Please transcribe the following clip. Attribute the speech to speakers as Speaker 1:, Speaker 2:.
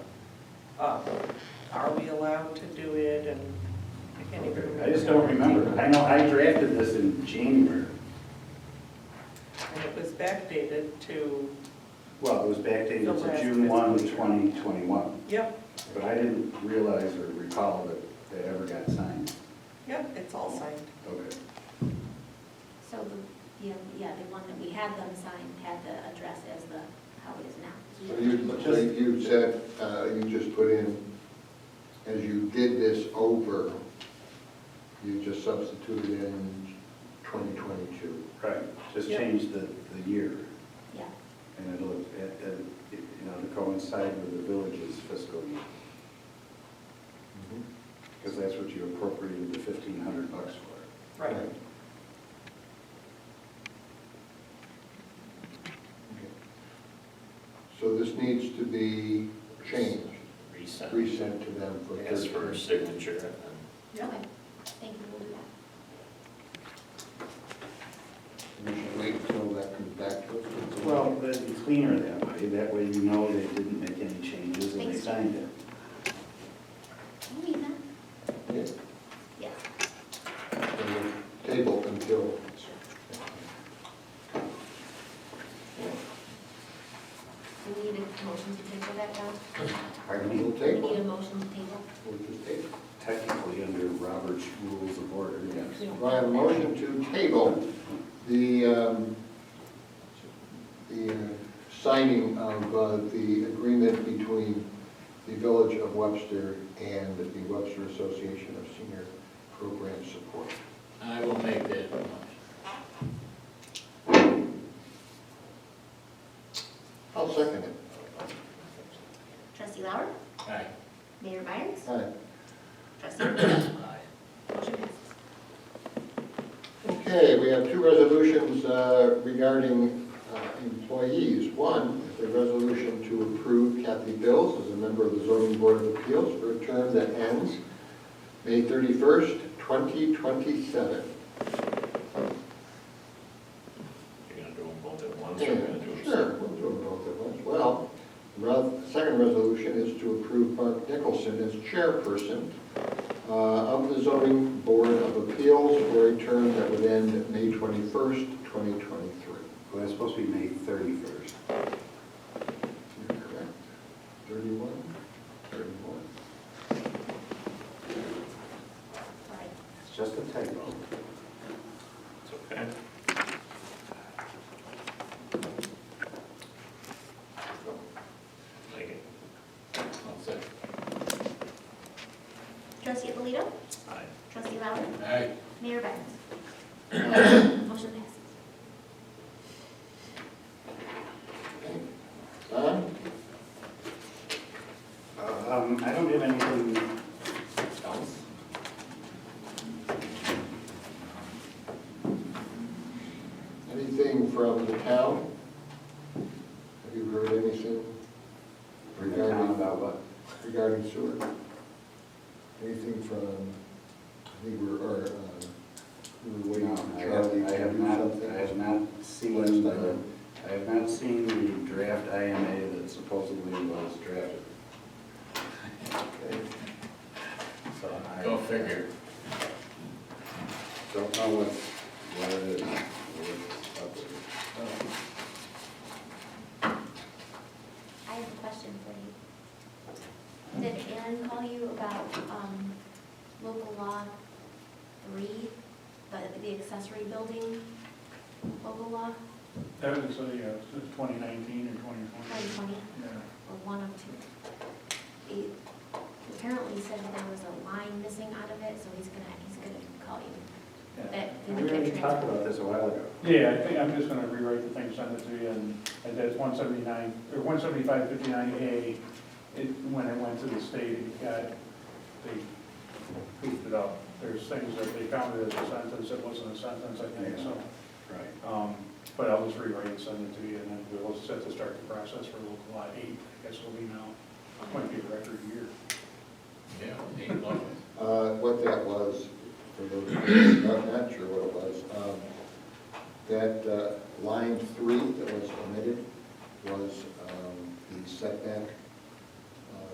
Speaker 1: up. Are we allowed to do it and I can't even remember.
Speaker 2: I just don't remember. I know I drafted this in January.
Speaker 1: And it was backdated to,
Speaker 2: Well, it was
Speaker 1: The
Speaker 2: backdated
Speaker 1: last
Speaker 2: to June 1,
Speaker 1: fiscal year.
Speaker 2: 2021,
Speaker 1: yep,
Speaker 2: but I didn't realize or recall that that ever got signed.
Speaker 1: yep, it's all signed.
Speaker 2: Okay.
Speaker 3: So the, yeah, yeah, the one that we had them sign had the address as the, how it is now.
Speaker 4: So you, so you said, uh, you just put in, as you did this over, you just substituted in 2022.
Speaker 2: Right, just
Speaker 1: Yep.
Speaker 2: change the, the year,
Speaker 3: Yeah,
Speaker 2: and it'll, it- it- it, you know, to coincide with the village's fiscal year, because that's what you appropriated the 1,500 bucks for.
Speaker 1: Right.
Speaker 4: So this needs to be changed,
Speaker 5: Resend.
Speaker 4: resent to them for.
Speaker 5: As for signature, and then
Speaker 1: Yep.
Speaker 3: okay, thank you, we'll do that.
Speaker 4: We should wait until that comes back to us.
Speaker 2: Well, that'd be cleaner that way, that way you know they didn't make any changes and they
Speaker 3: Thanks, Jim.
Speaker 2: signed it.
Speaker 3: Can we read that?
Speaker 4: Yeah.
Speaker 3: Yes.
Speaker 4: Table until.
Speaker 3: Do we need a motion to table that down?
Speaker 2: Pardon me?
Speaker 4: We'll
Speaker 3: Do we need a
Speaker 4: table.
Speaker 3: motion to table?
Speaker 4: We'll just table.
Speaker 2: Technically, under Robert's Rules of Order, yes.
Speaker 4: Do I have a motion to table the, um, the uh, signing of uh, the agreement between the Village of Webster and the Webster Association of Senior Program Support.
Speaker 5: I will make that motion.
Speaker 4: I'll second it.
Speaker 3: Trustee Lauer?
Speaker 5: Aye.
Speaker 3: Mayor Byers?
Speaker 4: Aye.
Speaker 3: Trustee Rizzo?
Speaker 5: Aye.
Speaker 3: Motion passes.
Speaker 4: Okay, we have two resolutions uh, regarding uh, employees. One is a resolution to approve Kathy Bills as a member of the zoning board of appeals for a term that ends May 31st, 2027.
Speaker 5: You're gonna do them both at once, or
Speaker 4: Sure,
Speaker 5: you're gonna do them?
Speaker 4: we'll do them both at once. Well, the second resolution is to approve Mark Nicholson as chairperson uh, of the zoning board of appeals for a term that would end May 21st, 2023.
Speaker 2: Well, it's supposed to be May 31st.
Speaker 4: You're correct. 31, 31.
Speaker 3: All right.
Speaker 2: It's just a typo.
Speaker 5: It's okay. Like it. I'll say.
Speaker 3: Trustee Alito?
Speaker 5: Aye.
Speaker 3: Trustee Lauer?
Speaker 5: Aye.
Speaker 3: Mayor Byers?
Speaker 4: Uh,
Speaker 3: Motion passes.
Speaker 4: Don?
Speaker 2: Um, I don't have anything else.
Speaker 4: Anything from the town? Have you heard anything
Speaker 2: Regarding
Speaker 4: regarding,
Speaker 2: about what?
Speaker 4: regarding sewer? Anything from, I think we're, or, uh, we were waiting
Speaker 2: No,
Speaker 4: for
Speaker 2: I
Speaker 4: Charlie
Speaker 2: have, I
Speaker 4: to
Speaker 2: have
Speaker 4: do
Speaker 2: not, I have
Speaker 4: something?
Speaker 2: not seen, the- I have not seen the draft IMA that supposedly was drafted.
Speaker 4: Okay.
Speaker 2: So I
Speaker 5: Go figure.
Speaker 2: Don't know what, what it is. or what's up with it.
Speaker 3: I have a question for you. Did Aaron call you about um, local law three, the- the accessory building local law,
Speaker 6: That was, uh, yeah, it was 2019 or 2020.
Speaker 3: 2020,
Speaker 6: Yeah.
Speaker 3: or one of two? He apparently said that there was a line missing out of it, so he's gonna, he's gonna call you.
Speaker 6: Yeah.
Speaker 3: That
Speaker 2: We already talked about this a while ago.
Speaker 6: Yeah, I think I'm just gonna rewrite the thing, send it to you, and and that's 179, or 17559A. It, when it went to the state, it got, they goofed it up. There's things that they counted as a sentence, it wasn't a sentence, I think, so.
Speaker 2: Right.
Speaker 6: Um, But I'll just rewrite and send it to you, and then we'll set to start the process for local law eight, I guess it'll be
Speaker 4: Uh, um, uh,
Speaker 6: now.
Speaker 4: um, uh,